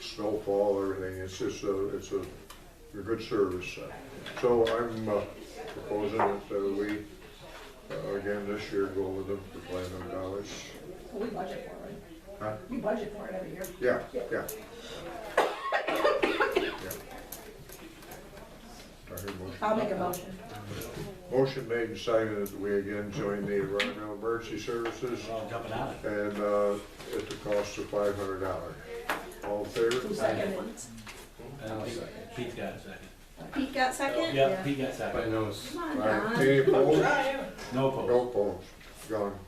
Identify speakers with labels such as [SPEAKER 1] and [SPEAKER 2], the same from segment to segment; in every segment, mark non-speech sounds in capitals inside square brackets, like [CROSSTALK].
[SPEAKER 1] snowfall, everything, it's just a, it's a, a good service. So I'm uh, proposing that uh, we, uh, again, this year, go with them for five hundred dollars.
[SPEAKER 2] We budget for it.
[SPEAKER 1] Huh?
[SPEAKER 2] We budget for it every year.
[SPEAKER 1] Yeah, yeah. Yeah. I heard motion.
[SPEAKER 2] I'll make a motion.
[SPEAKER 1] Motion made and seconded that we again join the Environmental Emergency Services
[SPEAKER 3] Well, jumping out of it.
[SPEAKER 1] and uh, at the cost of five hundred dollars. All in
[SPEAKER 2] Who
[SPEAKER 1] favor?
[SPEAKER 2] seconded it?
[SPEAKER 3] I
[SPEAKER 4] Oh,
[SPEAKER 3] don't think Pete's got a second.
[SPEAKER 5] Pete got second?
[SPEAKER 3] Yep, Pete got second.
[SPEAKER 4] Everybody knows.
[SPEAKER 5] Come on,
[SPEAKER 1] Aye.
[SPEAKER 5] Don.
[SPEAKER 1] Any opposed?
[SPEAKER 3] No opposed.
[SPEAKER 1] No opposed. Gone.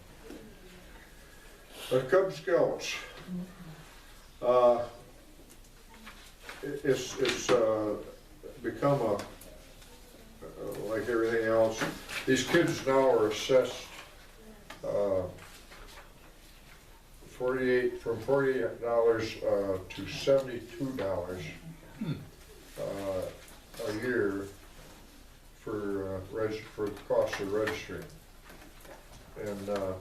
[SPEAKER 1] The Cub Scouts. Uh, it- It's, it's uh, become a, uh, like everything else, these kids now are assessed uh, forty-eight, from forty-eight dollars uh, to seventy-two dollars uh, a year for, uh, reg- for the cost of registering. And uh,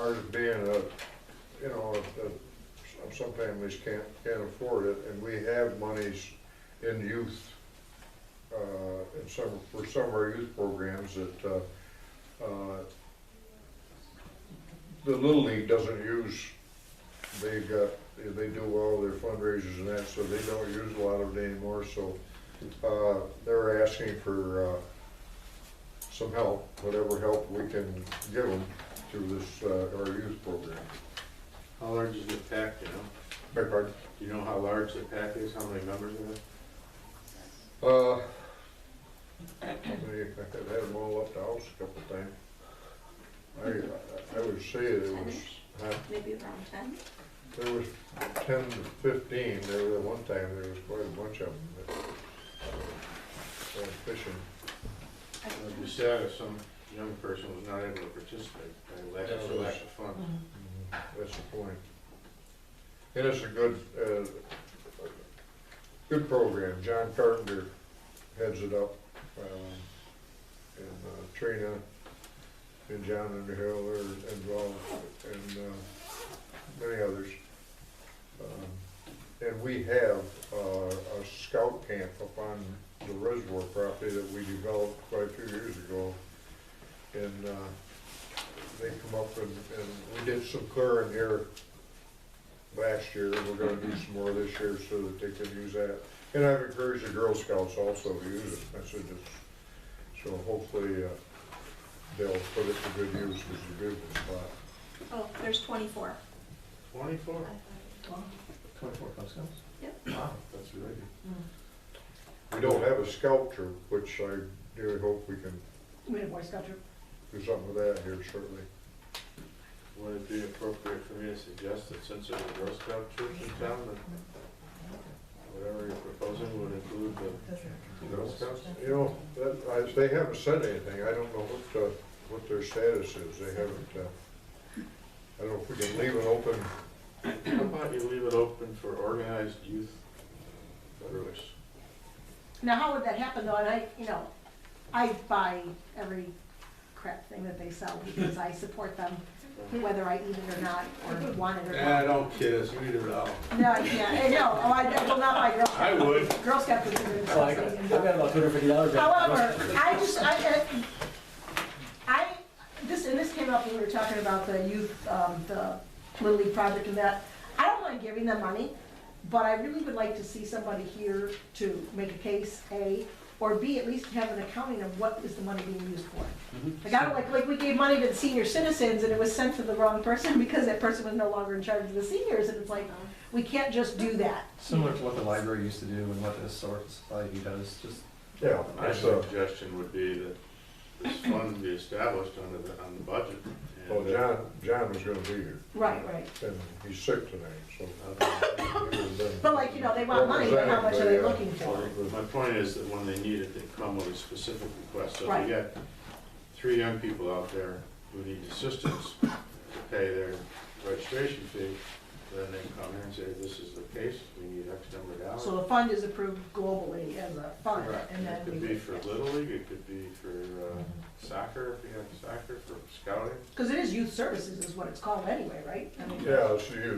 [SPEAKER 1] ours being a, you know, a- a- some families can't, can't afford it, and we have monies in youth, uh, in some, for some of our youth programs that uh, uh, the Little League doesn't use, they got, they do all their fundraisers and that, so they don't use a lot of it anymore, so uh, they're asking for uh, some help, whatever help we can give them through this, uh, our youth program.
[SPEAKER 4] How large is the pack, you know?
[SPEAKER 1] Beg pardon?
[SPEAKER 4] Do you know how large the pack is, how many members in it?
[SPEAKER 1] Uh, they- I could have them all up the house a couple times. I, I would say it was, huh,
[SPEAKER 5] Maybe around ten?
[SPEAKER 1] there was ten to fifteen, there was, one time, there was quite a bunch of them that uh, went fishing.
[SPEAKER 4] I'd be sad if some young person was not able to participate, by lack of, lack of funds.
[SPEAKER 1] Mm-hmm. That's the point. It is a good, uh, good program. John Carpenter heads it up. um, And uh, Trina and John Underhill are involved and uh, many others. Um, And we have uh, a scout camp up on the reservoir property that we developed quite a few years ago. And uh, they come up and, and we did some clearing here last year, and we're gonna do some more this year so that they can use that. And I've encouraged the Girl Scouts also to use it, I said, it's- so hopefully, uh, they'll put it to good use, it's a beautiful spot.
[SPEAKER 5] Oh, there's twenty-four.
[SPEAKER 4] Twenty-four?
[SPEAKER 3] Twenty-four Cub Scouts?
[SPEAKER 4] Wow, that's really good.
[SPEAKER 1] We don't have a sculpture, which I dearly hope we can
[SPEAKER 2] We had a Boy Scout troop.
[SPEAKER 1] do something with that here shortly.
[SPEAKER 4] Would it be appropriate for me to suggest that since there's a Girl Scout troop in town, that whatever you're proposing would include the Girl Scouts?
[SPEAKER 1] You know, that, I, they haven't said anything, I don't know what, uh, what their status is, they haven't, uh, I don't know if we can leave it open
[SPEAKER 4] How about you leave it open for organized youth groups?
[SPEAKER 2] Now, how would that happen though? And I, you know, I buy every crap thing that they sell because I support them, whether I eat it or not, or want it or
[SPEAKER 4] Ah,
[SPEAKER 2] not.
[SPEAKER 4] don't kid us, we need it all.
[SPEAKER 2] No, I can't. I know. Oh, I I will not buy Girl Scout.
[SPEAKER 4] I would.
[SPEAKER 2] Girl Scout is
[SPEAKER 3] I like it. I've got about two hundred fifty dollars.
[SPEAKER 2] However, I just, I, I- I, this, and this came up when we were talking about the youth, um, the Little League project and that. I don't mind giving them money, but I really would like to see somebody here to make a case, A, or B, at least have an accounting of what is the money being used for. Like, I don't, like, like, we gave money to the senior citizens and it was sent to the wrong person [LAUGHS] because that person was no longer in charge of the seniors, and it's like, we can't just do that.
[SPEAKER 6] Similar to what the library used to do and what the historical society does, just
[SPEAKER 1] Yeah, uh,
[SPEAKER 4] My
[SPEAKER 1] that's a,
[SPEAKER 4] suggestion would be that this fund be established under the, on the budget. and uh,
[SPEAKER 1] well,
[SPEAKER 4] that-
[SPEAKER 1] John, John was gonna be here,
[SPEAKER 2] Right, right.
[SPEAKER 1] and he's sick tonight, so. uh,
[SPEAKER 2] But like, you know, they want money, but how much are they looking for?
[SPEAKER 4] Well, My point is that when they need it, they come with a specific request. So if
[SPEAKER 2] Right.
[SPEAKER 4] you got three young people out there who need assistance to pay their registration fee, then they come here and say, this is the case, we need X number of dollars.
[SPEAKER 2] So the fund is approved globally as a fund,
[SPEAKER 4] Right.
[SPEAKER 2] and Mm-hmm. then
[SPEAKER 4] It could be
[SPEAKER 2] we,
[SPEAKER 4] for Little League, it could be for uh, soccer, if you have soccer, for scouting.
[SPEAKER 2] because it is youth services is what it's called anyway, right? I mean,
[SPEAKER 1] Yeah, it's you.